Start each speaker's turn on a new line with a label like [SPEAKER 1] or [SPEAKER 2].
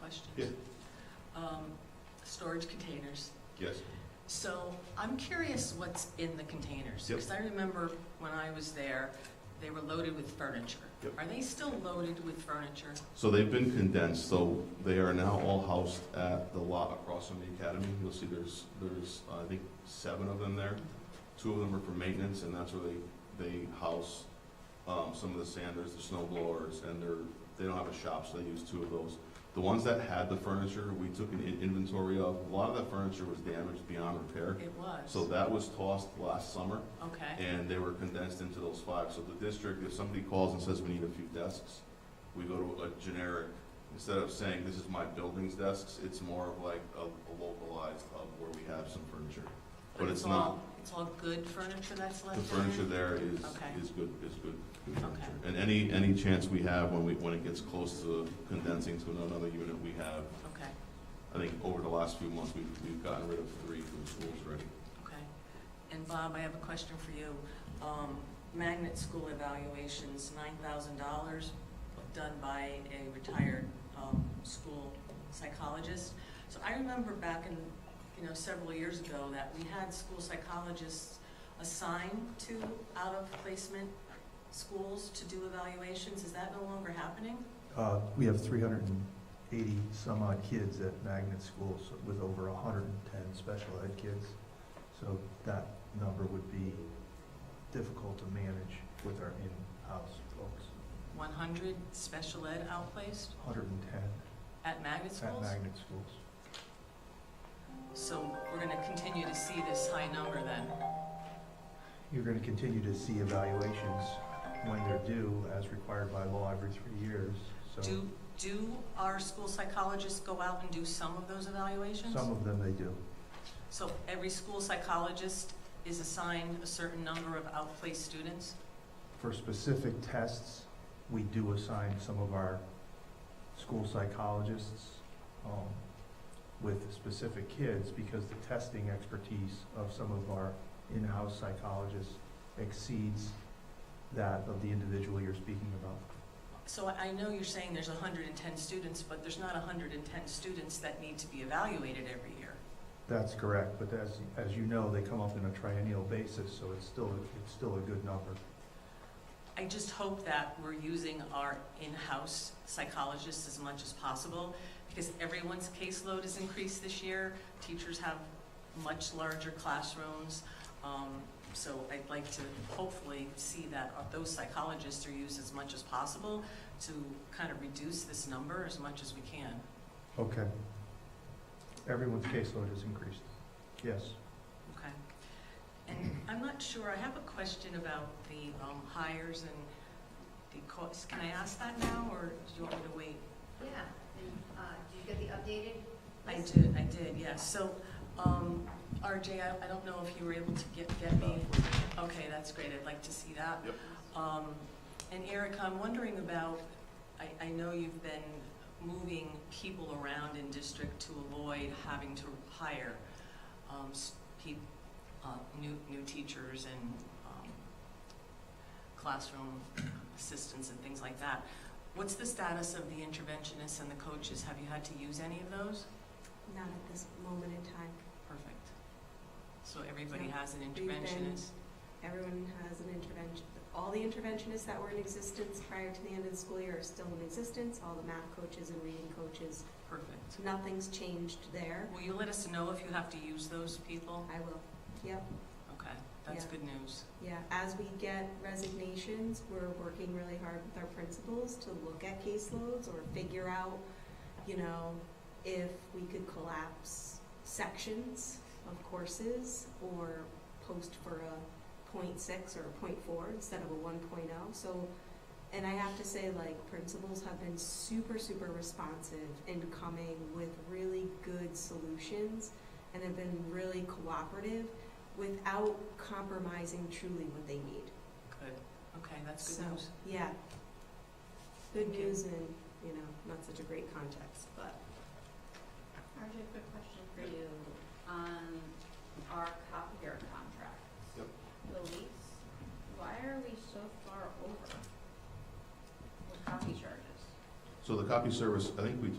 [SPEAKER 1] questions.
[SPEAKER 2] Yeah.
[SPEAKER 1] Um, Storage containers.
[SPEAKER 2] Yes.
[SPEAKER 1] So I'm curious what's in the containers.
[SPEAKER 2] Yep.
[SPEAKER 1] Because I remember when I was there, they were loaded with furniture.
[SPEAKER 2] Yep.
[SPEAKER 1] Are they still loaded with furniture?
[SPEAKER 2] So they've been condensed, so they are now all housed at the lot across from the academy. You'll see there's, there's, uh, I think, seven of them there. Two of them are for maintenance, and that's where they, they house, um, some of the sanders, the snow blowers, and they're, they don't have a shop, so they use two of those. The ones that had the furniture, we took an in- inventory of. A lot of that furniture was damaged beyond repair.
[SPEAKER 1] It was.
[SPEAKER 2] So that was tossed last summer,
[SPEAKER 1] Okay,
[SPEAKER 2] and they were condensed into those five. So the district, if somebody calls and says we need a few desks, we go to a generic, instead of saying this is my building's desks, it's more of like a a localized of where we have some furniture.
[SPEAKER 1] but
[SPEAKER 2] but
[SPEAKER 1] it's
[SPEAKER 2] it's not-
[SPEAKER 1] all, it's all good furniture that's left
[SPEAKER 2] The
[SPEAKER 1] in
[SPEAKER 2] furniture there is,
[SPEAKER 1] Okay.
[SPEAKER 2] is good, is good good furniture. And any, any chance we have when we, when it gets close to condensing to another unit, we have,
[SPEAKER 1] Okay,
[SPEAKER 2] I think over the last few months, we've, we've gotten rid of three from schools already.
[SPEAKER 1] okay. And Bob, I have a question for you. Um, Magnet school evaluations, nine thousand dollars, done by a retired, um, school psychologist. So I remember back in, you know, several years ago that we had school psychologists assigned to out-of-placement schools to do evaluations. Is that no longer happening?
[SPEAKER 3] Uh, We have 380 some odd kids at magnet schools with over 110 special ed kids. So that number would be difficult to manage with our in-house folks.
[SPEAKER 1] One hundred special ed outplaced
[SPEAKER 3] 110
[SPEAKER 1] at magnet
[SPEAKER 3] at
[SPEAKER 1] schools?
[SPEAKER 3] magnet schools.
[SPEAKER 1] So we're gonna continue to see this high number then?
[SPEAKER 3] You're going to continue to see evaluations when they're due as required by law every three years. So
[SPEAKER 1] Do, do our school psychologists go out and do some of those evaluations?
[SPEAKER 3] some of them they do.
[SPEAKER 1] So every school psychologist is assigned a certain number of outplaced students?
[SPEAKER 3] For specific tests, we do assign some of our school psychologists um, with specific kids because the testing expertise of some of our in-house psychologists exceeds that of the individual you're speaking about.
[SPEAKER 1] So I I know you're saying there's hundred and ten students, but there's not hundred and ten students that need to be evaluated every year.
[SPEAKER 3] That's correct, but as, as you know, they come up in a triennial basis, so it's still, it's still a good number.
[SPEAKER 1] I just hope that we're using our in-house psychologists as much as possible, because everyone's caseload has increased this year. Teachers have much larger classrooms, um, so I'd like to hopefully see that those psychologists are used as much as possible to kind of reduce this number as much as we can.
[SPEAKER 3] Okay. Everyone's caseload has increased. Yes.
[SPEAKER 1] Okay. And I'm not sure, I have a question about the um, hires and the costs. Can I ask that now, or do you want me to wait?
[SPEAKER 4] Yeah, and, uh, did you get the updated?
[SPEAKER 1] I
[SPEAKER 4] list?
[SPEAKER 1] did, I did, yes. So, um, RJ, I, I don't know if you were able to get, get me, okay, that's great, I'd like to see that.
[SPEAKER 2] Yep.
[SPEAKER 1] Um, and Erica, I'm wondering about, I, I know you've been moving people around in district to avoid having to hire, um, s- peop, uh, new, new teachers and, um, classroom assistants and things like that. What's the status of the interventionists and the coaches? Have you had to use any of those?
[SPEAKER 5] Not at this moment in time.
[SPEAKER 1] Perfect. So everybody
[SPEAKER 5] Yeah.
[SPEAKER 1] has an
[SPEAKER 5] been-
[SPEAKER 1] interventionist?
[SPEAKER 5] Everyone has an intervention, all the interventionists that were in existence prior to the end of the school year are still in existence, all the math coaches and reading coaches.
[SPEAKER 1] Perfect.
[SPEAKER 5] So nothing's changed there.
[SPEAKER 1] Will you let us know if you have to use those people?
[SPEAKER 5] I will, yep,
[SPEAKER 1] Okay, that's
[SPEAKER 5] Yeah.
[SPEAKER 1] good news.
[SPEAKER 5] yeah. As we get resignations, we're working really hard with our principals to look at caseloads or figure out, you know, if we could collapse sections of courses or post for a .6 or a .4 instead of a one oh. So, and I have to say, like, principals have been super, super responsive in coming with really good solutions and have been really cooperative without compromising truly what they need.
[SPEAKER 1] Good. Okay, that's
[SPEAKER 5] So,
[SPEAKER 1] good news.
[SPEAKER 5] yeah. Good
[SPEAKER 1] Thank you.
[SPEAKER 5] news and, you know, not such a great context, but
[SPEAKER 4] RJ, quick question for you, on our copier contract.
[SPEAKER 2] Yep.
[SPEAKER 4] The lease, why are we so far over? The copy charges.
[SPEAKER 2] So the copy service, I think we